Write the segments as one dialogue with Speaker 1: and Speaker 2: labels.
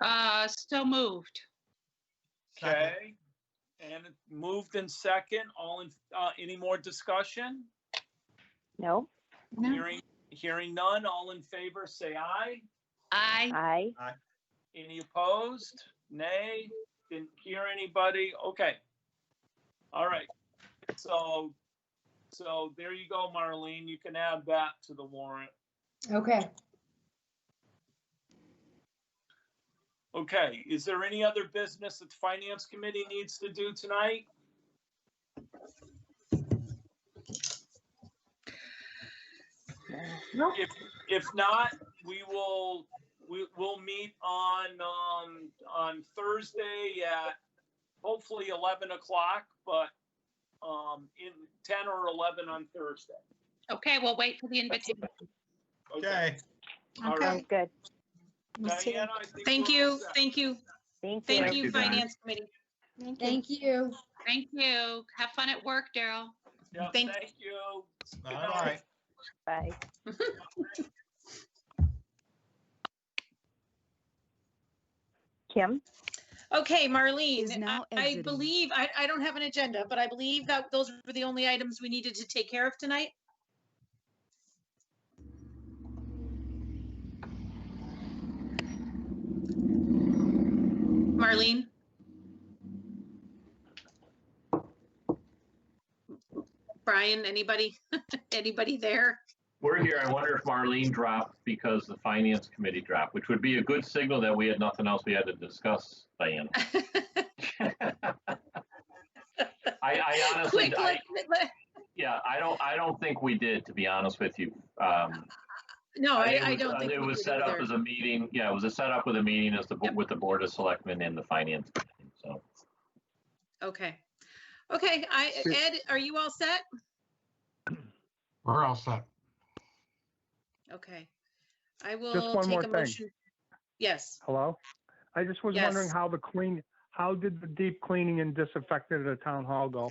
Speaker 1: Uh, so moved.
Speaker 2: Okay, and it moved in second, all in, uh, any more discussion?
Speaker 3: No,
Speaker 2: Hearing, hearing none, all in favor, say aye.
Speaker 1: Aye.
Speaker 3: I,
Speaker 2: Any opposed? Nay? Didn't hear anybody? Okay. All right. So, so there you go, Marlene. You can add that to the warrant.
Speaker 4: Okay,
Speaker 2: Okay, is there any other business that the Finance Committee needs to do tonight?
Speaker 3: No.
Speaker 2: If, if not, we will, we will meet on, um, on Thursday at hopefully 11 o'clock, but, um, in 10 or 11 on Thursday.
Speaker 1: Okay, we'll wait for the invitation.
Speaker 5: Okay,
Speaker 2: All
Speaker 3: sounds
Speaker 2: right.
Speaker 3: good.
Speaker 2: Diana, I think
Speaker 6: Thank
Speaker 2: we're all
Speaker 6: you,
Speaker 2: set.
Speaker 6: thank you,
Speaker 3: Thank you.
Speaker 6: thank you,
Speaker 5: Diane.
Speaker 6: Finance Committee.
Speaker 4: thank you.
Speaker 1: Thank you. Have fun at work, Daryl.
Speaker 2: Yeah,
Speaker 6: Thank-
Speaker 2: Thank you. Good
Speaker 5: all
Speaker 2: night.
Speaker 5: right.
Speaker 3: Bye. Kim?
Speaker 6: Okay,
Speaker 7: Is
Speaker 6: Marlene, I-
Speaker 7: now
Speaker 6: I
Speaker 7: exiting.
Speaker 6: believe, I, I don't have an agenda, but I believe that those were the only items we needed to take care of tonight. Marlene? Brian, anybody, anybody there?
Speaker 8: We're here. I wonder if Marlene dropped because the finance committee dropped, which would be a good signal that we had nothing else we had to discuss, Diana. I, I honestly,
Speaker 6: Quick,
Speaker 8: I,
Speaker 6: let- let-
Speaker 8: yeah, I don't, I don't think we did, to be honest with you. Um,
Speaker 6: No, Oh, I,
Speaker 8: think it
Speaker 6: I
Speaker 8: was- uh,
Speaker 6: don't think.
Speaker 8: It
Speaker 6: we
Speaker 8: was
Speaker 6: did
Speaker 8: set up
Speaker 6: either.
Speaker 8: as a meeting, yeah, it was a setup with a meeting as the, bo-
Speaker 6: Yep.
Speaker 8: with the board of selectmen and the finance, committee. so.
Speaker 6: Okay. Okay, I,
Speaker 5: Sure.
Speaker 6: Ed, are you all set?
Speaker 5: We're all set.
Speaker 6: Okay. I will
Speaker 9: one
Speaker 6: take
Speaker 9: more
Speaker 6: a
Speaker 9: thing.
Speaker 6: motion. Yes,
Speaker 9: Hello? I just was wondering
Speaker 6: Yes.
Speaker 9: how the clean, how did the deep cleaning and disinfectant at the town hall go?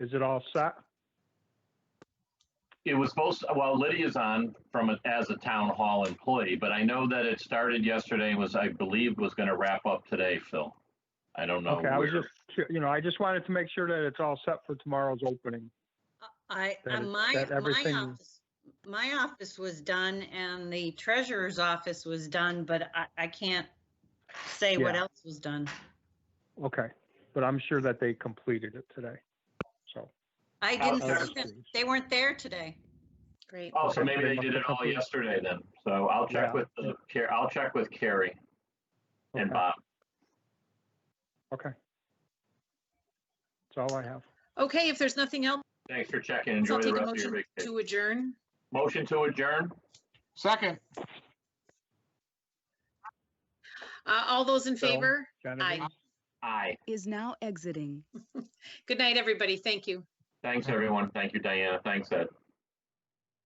Speaker 9: Is it all set?
Speaker 8: It was supposed, well, Lydia's on from, a- as a town hall employee, but I know that it started yesterday and was, I believe, was gonna wrap up today, Phil. I don't know.
Speaker 9: Okay, I was
Speaker 8: where.
Speaker 9: just, cu- you know, I just wanted to make sure that it's all set for tomorrow's opening.
Speaker 10: I,
Speaker 9: that
Speaker 10: uh,
Speaker 9: it-
Speaker 10: my,
Speaker 9: that
Speaker 10: my
Speaker 9: everything-
Speaker 10: office, my office was done and the treasurer's office was done, but I, I can't say what
Speaker 9: Yeah.
Speaker 10: else was done.
Speaker 9: Okay, but I'm sure that they completed it today, so.
Speaker 10: I
Speaker 8: How-
Speaker 10: didn't
Speaker 8: how-
Speaker 10: see them. They weren't there today.
Speaker 6: great.
Speaker 8: Oh, so maybe they did it all yesterday then. So I'll check
Speaker 9: Yeah.
Speaker 8: with, the Car- I'll check with Carrie and
Speaker 9: okay,
Speaker 8: Bob.
Speaker 9: Okay. That's all I have.
Speaker 6: Okay, if there's nothing else,
Speaker 8: Thanks for checking.
Speaker 6: I'll
Speaker 8: Enjoy the
Speaker 6: take a
Speaker 8: rest of your
Speaker 6: motion
Speaker 8: vacation.
Speaker 6: to adjourn.
Speaker 8: Motion to adjourn?
Speaker 5: Second.
Speaker 6: Uh, all those in
Speaker 9: So-
Speaker 6: favor?
Speaker 9: Jennifer?
Speaker 6: Aye.
Speaker 8: Aye.
Speaker 7: Is now exiting.
Speaker 6: Good night, everybody. Thank you.
Speaker 8: Thanks, everyone. Thank you, Diana. Thanks, Ed.